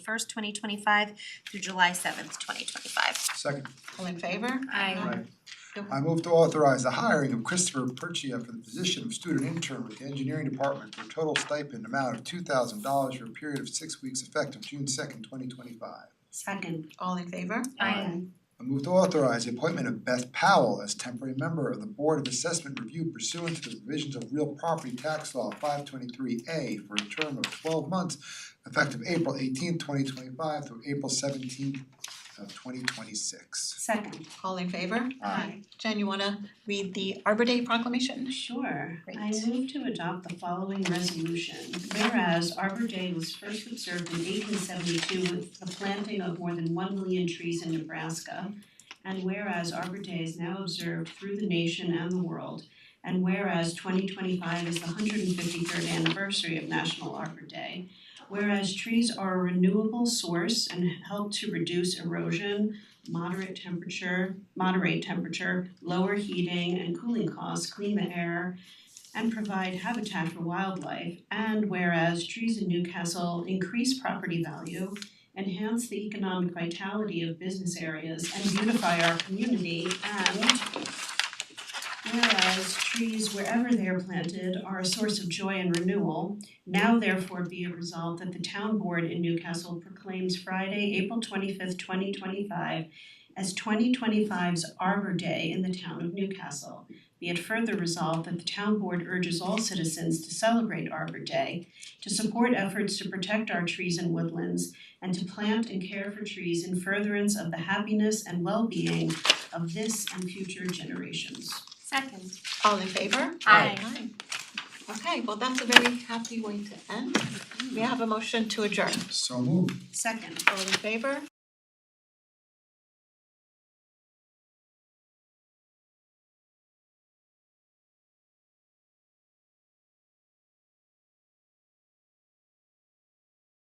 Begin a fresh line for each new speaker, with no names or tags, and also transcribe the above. first, twenty twenty-five through July seventh, twenty twenty-five.
Second,
All in favor?
Aye.
right. I move to authorize the hiring of Christopher Perchia for the position of student intern with the engineering department for a total stipend amount of two thousand dollars for a period of six weeks effective June second, twenty twenty-five.
Second.
All in favor?
Aye.
I move to authorize the appointment of Beth Powell as temporary member of the Board of Assessment Review pursuant to the provisions of Real Property Tax Law five twenty-three A for a term of twelve months effective April eighteenth, twenty twenty-five through April seventeenth of twenty twenty-six.
Second.
All in favor?
Aye.
Jen, you wanna read the Arbor Day proclamation?
Sure, I
Great.
move to adopt the following resolution. Whereas Arbor Day was first observed in eighteen seventy-two with the planting of more than one million trees in Nebraska. And whereas Arbor Day is now observed through the nation and the world. And whereas twenty twenty-five is the hundred and fifty-third anniversary of National Arbor Day. Whereas trees are a renewable source and help to reduce erosion, moderate temperature, moderate temperature, lower heating and cooling costs, clean the air, and provide habitat for wildlife. And whereas trees in Newcastle increase property value, enhance the economic vitality of business areas, and beautify our community, and whereas trees wherever they are planted are a source of joy and renewal, now therefore be it resolved that the town board in Newcastle proclaims Friday, April twenty-fifth, twenty twenty-five as 2025's Arbor Day in the town of Newcastle. Be it further resolved that the town board urges all citizens to celebrate Arbor Day, to support efforts to protect our trees and woodlands, and to plant and care for trees in furtherance of the happiness and well-being of this and future generations.
Second.
All in favor?
Aye.
Aye. Okay, well, that's a very happy way to end. We have a motion to adjourn.
So moved.
Second,
All in favor?